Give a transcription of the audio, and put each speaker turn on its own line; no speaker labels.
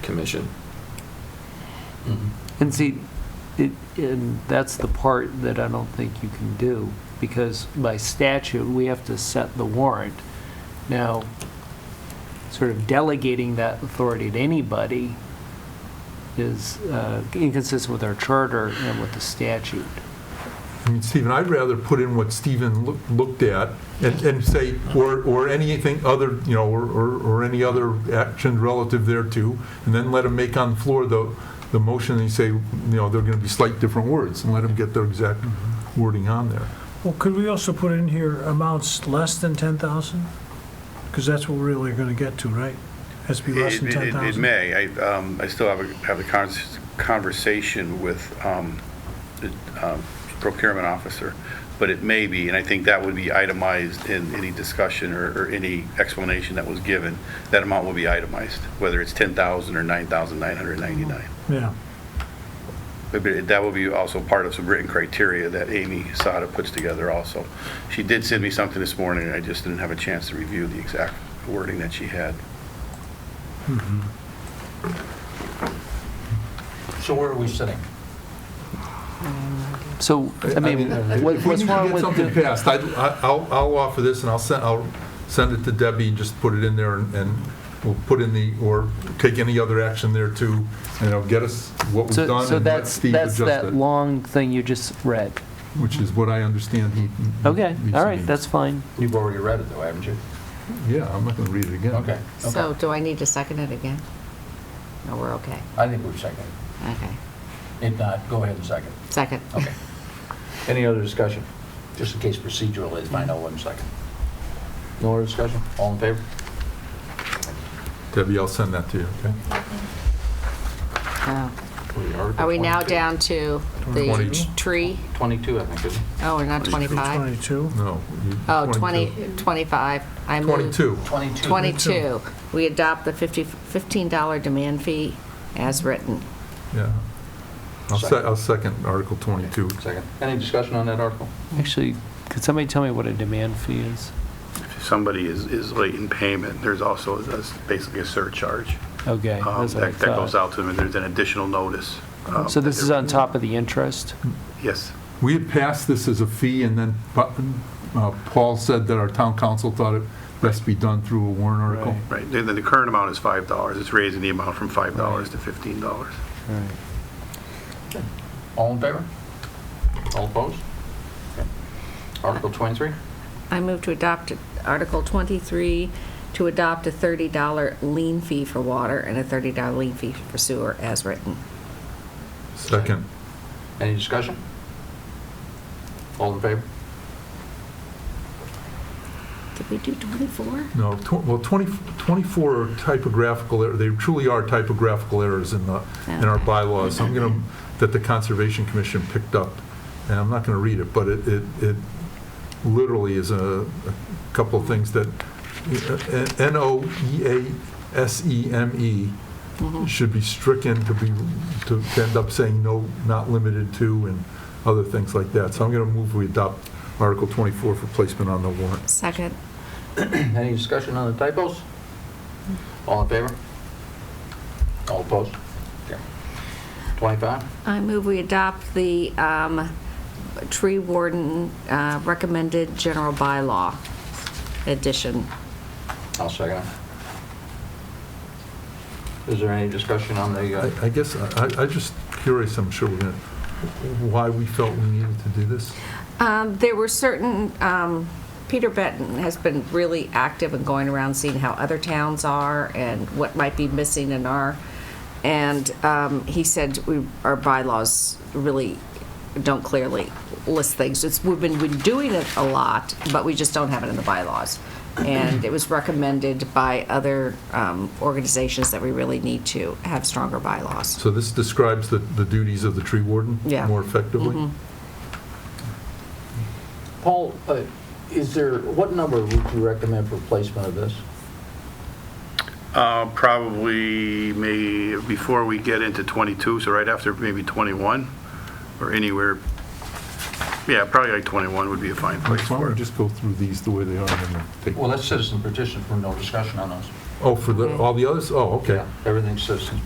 commission.
Mm-hmm.
And see, it, and that's the part that I don't think you can do, because by statute, we have to set the warrant. Now, sort of delegating that authority to anybody is uh, inconsistent with our charter and with the statute.
I mean, Stephen, I'd rather put in what Stephen loo- looked at and, and say, or, or anything other, you know, or, or or any other action relative thereto, and then let him make on the floor the, the motion, and you say, you know, they're going to be slight different words, and let him get their exact wording on there.
Well, could we also put in here amounts less than 10,000? Because that's what we're really going to get to, right? Has to be less
It
than
it- it
10,000.
may. I um, I still have a have a cons- conversation with um, the um, procurement officer, but it may be, and I think that would be itemized in any discussion or or any explanation that was given. That amount will be itemized, whether it's 10,000 or 9,999.
Yeah,
But it- That will be also part of some written criteria that Amy Sada puts together also. She did send me something this morning, and I just didn't have a chance to review the exact wording that she had.
So where are we sitting?
So, I mean, what-
uh, If we
what's
need to
wrong
get
with,
something
the-
passed, I'd- I- I'll, I'll offer this, and I'll send, I'll send it to Debbie, and just put it in there, and- and we'll put in the, or take any other action there too, and it'll get us what was
so
done,
so
and let
that's,
Steve
that's
adjust
that
it, Mm-hmm.
long thing you just read.
which is what I understand he.
Okay,
he
all right,
means.
that's fine.
You've already read it, though, haven't you?
Yeah, I'm not going to read it again.
Okay. okay.
So do I need to second it again? No, we're okay.
I think we've seconded.
Okay.
If not, go ahead and second.
Second.
Okay. Any other discussion? Just in case procedural is, I know one second. No other discussion? All in favor?
Debbie, I'll send that to you, okay?
Uh, Are we now down to
Twenty.
the tree?
22, I think, is it?
Oh, we're not 25?
22.
No. you-
Oh, 20,
22.
25. I move-
22.
22.
22. We adopt the 50, $15 demand fee as written.
yeah. I'll se-
Second.
I'll second Article 22.
Second. Any discussion on that article?
Actually, could somebody tell me what a demand fee is?
somebody is, is late in payment, there's also a- basically a surcharge
Okay,
um,
that's what I
that that goes
thought.
out to them, and there's an additional notice. um,
So
that
this is
they're-
on top of the interest?
Yes.
We had passed this as a fee, and then Pa- uh, Paul said that our town council thought it best be done through a warrant article.
Right, the, the current amount is $5, it's raising the amount from $5 to $15.
All in favor? All opposed? Okay. Article 23?
I move to adopt Article 23, to adopt a $30 lien fee for water and a $30 lien fee for sewer as written.
Second.
Any discussion? All in favor?
Did we do 24?
No, tw- well, 20 24 are typographical, er- they truly are typographical errors in the, in our
Okay.
bylaws. I'm going to, that the Conservation Commission picked up, and I'm not going to read it, but it, it it literally is a a couple of things that, uh, N-O-E-A-S-E-M-E E
Mm-hmm.
should be stricken to be, to end up saying no, not limited to, and other things like that. So I'm going to move we adopt Article 24 for placement on the warrant.
Second.
Any discussion on the typos? All in favor? All opposed? Okay. 25?
I move we adopt the um, tree warden uh, recommended general bylaw edition.
I'll second it. Is there any discussion on the, uh,
I I guess, I, I- I'm just curious, I'm sure we're going to, why we felt we needed to do this?
Um, There were certain, um, Peter Benton has been really active in going around seeing how other towns are and what might be missing in our, and um, he said we- our bylaws really don't clearly list things. It's, we've been, been doing it a lot, but we just don't have it in the bylaws. And it was recommended by other um, organizations that we really need to have stronger bylaws.
So this describes the, the duties of the tree warden?
Yeah.
More effectively?
Paul, uh, is there, what number would you recommend for placement of this?
Uh, Probably may, before we get into 22, so right after maybe 21, or anywhere, yeah, probably like 21 would be a fine
Why
place
don't
for
we
it.
just go through these the way they are and then take?
Well, that's citizen petition for no discussion on those.
Oh, for the, all the others? Oh, okay.
Everything's citizen